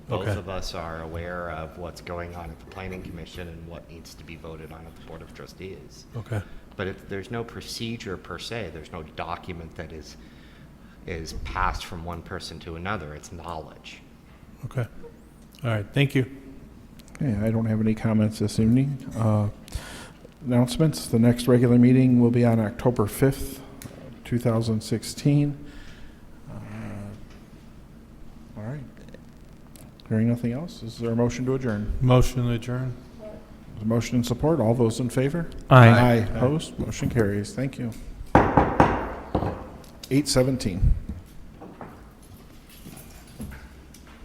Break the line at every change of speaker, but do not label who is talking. both
Okay.
of us are aware of what's going on at the planning commission and what needs to be voted on at the board of trustees.
Okay.
But if, there's no procedure per se, there's no document that is, is passed from one person to another, it's knowledge.
Okay. All right. Thank you.
Okay, I don't have any comments this evening. Uh, Announcements, the next regular meeting will be on October 5th, 2016. Uh, All right. Hearing nothing else, is there a motion to adjourn?
Motion to adjourn.
Is Motion and support, all those in favor?
Aye.
Aye, opposed, motion carries, thank you. 8:17.